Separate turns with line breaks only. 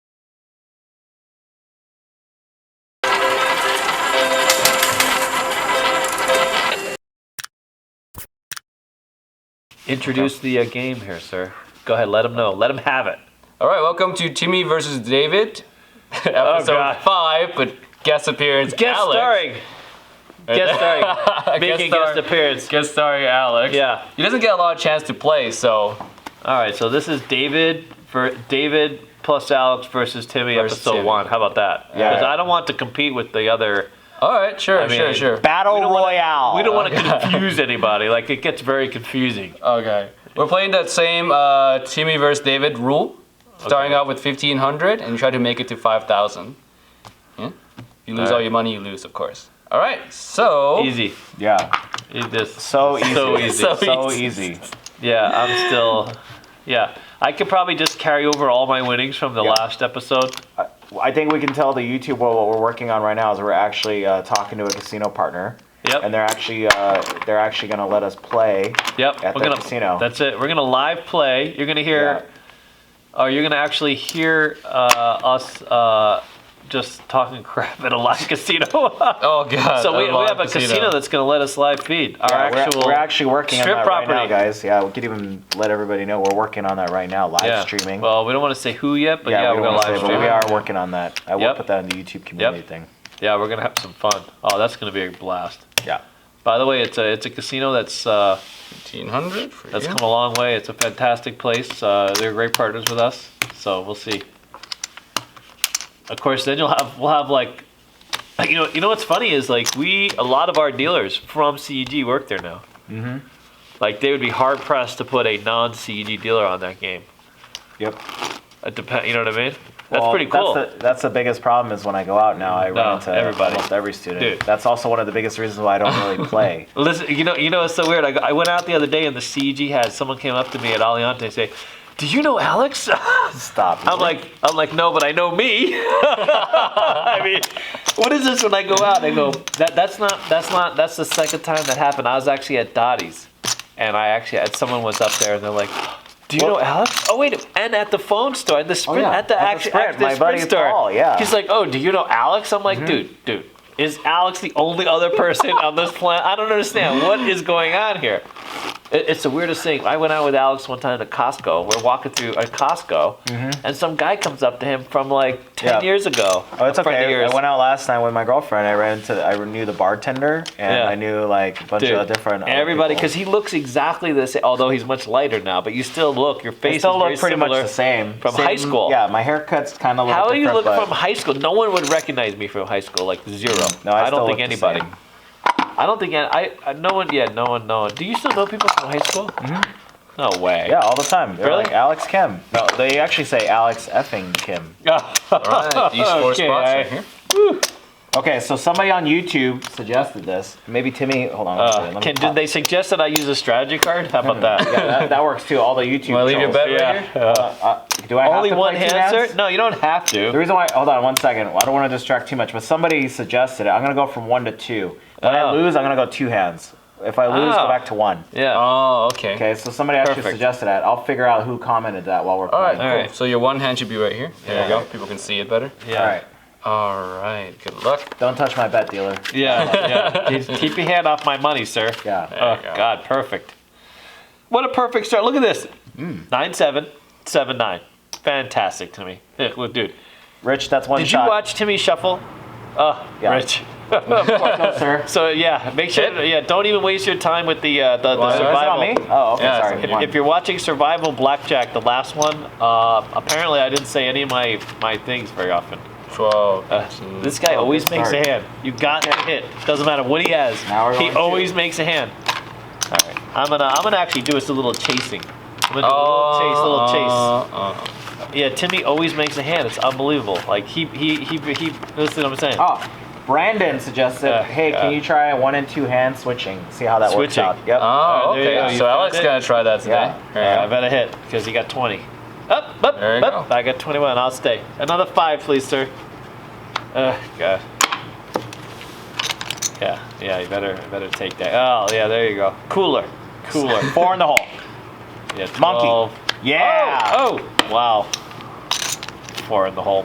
Introduce the uh, game here, sir. Go ahead, let them know. Let them have it.
All right, welcome to Timmy versus David, episode
Oh, God.
five. But guest appearance,
Guest
Alex.
starring. Guest starring. Making
Guest star-
guest appearance.
Guest starring Alex.
Yeah.
He doesn't get a lot of chance to play, so
All right, so this is David for David plus Alex versus Timmy
Versus
episode
Timmy.
one. How about that?
Yeah.
Because I don't want to compete with the other.
all right, sure,
I mean,
sure, sure.
Battle Royale.
We don't want to
Okay.
confuse anybody. Like it gets very confusing.
Okay. We're playing that same uh, Timmy versus David rule, starting
Okay.
out with 1500 and try to make it to 5000. Yeah? If you lose
All
all
right.
your money, you lose, of course. All right, so.
Easy.
yeah.
Eat this.
So easy.
So easy.
Oh. So
So
easy.
easy.
Yeah, I'm still. Yeah, I could probably just carry over all my winnings from the
Yeah.
last episode.
I- I think we can tell the YouTube world what we're working on right now is we're actually uh, talking to a casino partner.
Yep.
And they're actually uh, they're actually gonna let us play.
Yep.
at
we're
the
gonna,
casino.
That's it. We're gonna live play. You're gonna hear. Oh, you're gonna actually hear uh, us uh, just talking crap at a live casino. so
Oh, God.
we,
I
we
love
have a casino. that's gonna let us live feed our
Yeah, we're-
actual.
we're, actually working on
strip
that right now,
property.
guys. Yeah, we could even let everybody know we're working on that right now, live
yeah.
streaming.
Well, we don't want to say who yet, but yeah,
we
we're
don't
gonna
wanna say,
live
but
stream.
we
it.
are working on that. I will
Yep.
put that in the YouTube community thing.
Yeah, we're gonna have some fun. Oh, that's gonna be a blast.
Yeah.
By the way, it's a it's a casino that's uh,
1500 for
that's
you.
come a long way. It's a fantastic place. Uh, they're great partners with us, so we'll see. Of course, then you'll have we'll have like, like you know you know what's funny is like we a lot of our dealers from CEG work there now. Mm-hmm. Like they would be hard pressed to put a non CEG dealer on that game.
Yep.
It depend, you know what I mean? That's
Well,
pretty cool.
That's the, that's the biggest problem is when I go out now, I
No,
run into
everybody.
almost every student.
Dude.
That's also one of the biggest reasons why I don't really play.
Listen, you know, you know, it's so weird. I, go- I went out the other day, and the CG had someone came up to me at Aliante and say, "Do you know Alex?" I'm
Stop.
like, I'm like, no, but I know me. I mean, what is this when I go out? I go, that that's not that's not that's the second time that happened. I was actually at Dottie's, and I actually had someone was up there, and they're like. Do you
Well- Oh,
know Alex? Oh wait, and at the phone store, at the sprint,
yeah,
at the
at the
actual
Sprint,
at the
my
sprint
buddy
store.
Paul, yeah. Mm-hmm.
He's like, oh, do you know Alex? I'm like, dude, dude, is Alex the only other person on this planet? I don't understand what is going on here. It- it's the weirdest thing. I went out with Alex one time to Costco. We're walking through a Costco, and some guy comes up to him from like ten
Mm-hmm. Yeah.
years ago.
Oh, it's
a friend of
okay. I- I,
yours.
went out last night with my girlfriend. I ran into, I knew the bartender, and
Yeah.
I knew like a bunch
Dude,
of different. other
everybody,
people.
because he looks exactly the same. Although he's much lighter now, but you still look. Your
they
face
still
is
look
very
pretty much
similar.
the same
from
Same-
high school.
Yeah, my haircut's kind of.
How do you look
different, but-
from high school? No one would recognize me from high school, like zero.
Mm-hmm. No, I,
don't
still
think
look the
anybody.
same.
I don't think I, I. No one. Yeah, no one. No one. Do you still know people from high school? No way.
Mm-hmm. Yeah, all the time. They're
Really?
like Alex Kim. No, they actually say Alex effing Kim.
All right, these four
Okay,
spots
I-
right here.
Okay, so somebody on YouTube suggested this. Maybe Timmy. Hold on. one second,
Uh,
let me
can, did
pop-
they suggest that I use a strategy card? How about that?
Yeah, that, that works too. All the YouTube.
Want to leave your
trolls.
bet right
Yeah.
here?
Uh,
Uh, do I have
only
to play
one
two hands?
answer? No, you don't have
The
to.
reason why, hold on one second. I don't want to distract too much, but somebody suggested it. I'm gonna go from one to two. When I
Oh.
lose, I'm gonna go two hands. If I lose,
Oh.
go back to one.
Yeah.
Oh, okay.
Okay, so somebody actually
Perfect.
suggested that. I'll figure out who commented that while we're
All right,
playing.
cool.
All right.
So your one hand should be right here. There
Yeah.
you go. People can see it better.
Yeah.
All right.
All right. Good luck.
Don't touch my bet, dealer.
Yeah. yeah. Keep- Keep your hand off my money, sir.
Yeah.
Oh
you go.
God, perfect. What a perfect start! Look at this.
Hmm.
Nine seven seven nine. Fantastic to me, Ugh, well, dude.
Rich, that's one
Did
shot.
you watch Timmy Shuffle? Oh,
Yeah.
Rich.
No, sir.
So yeah, make sure. Yeah, don't even waste your time with the uh, the, the
Why- why is it on
survival.
Is it on me? Oh, okay.
Yeah, it's
sorry.
on
One.
If, if you're watching Survival Blackjack, the last one, uh, apparently I didn't say any of my my things very often.
Twelve.
Uh, this guy
Oh,
always
good
makes
start.
a hand. You got to hit. Doesn't matter what he has.
Now we're
He
going two.
always makes a hand.
All right.
I'm gonna I'm gonna actually do us a little chasing. I'm gonna do a little chase, little
Uh, uh,
chase. Yeah, Timmy always makes a hand. It's unbelievable. Like he he he he. Listen, what I'm saying.
Oh, Brandon suggested,
Yeah,
hey,
yeah.
can you try one and two hand switching? See how that
Switching. Uh.
works out. Yep.
oh,
Alright, there you
okay.
go. You
So
found
Alex
it?
is gonna try that today.
Yeah.
There you
Alright, Uh, I
go.
better hit because he got 20. Up, up,
There you
up.
go.
I got 21. I'll stay. Another five, please, sir. Uh, God. Yeah, yeah. You better you better take that. Oh, yeah. There you go. Cooler, cooler.
Four in the hole.
Oh, Yeah,
Monkey.
12.
Yeah.
oh.
Oh, oh, wow. Four in the hole.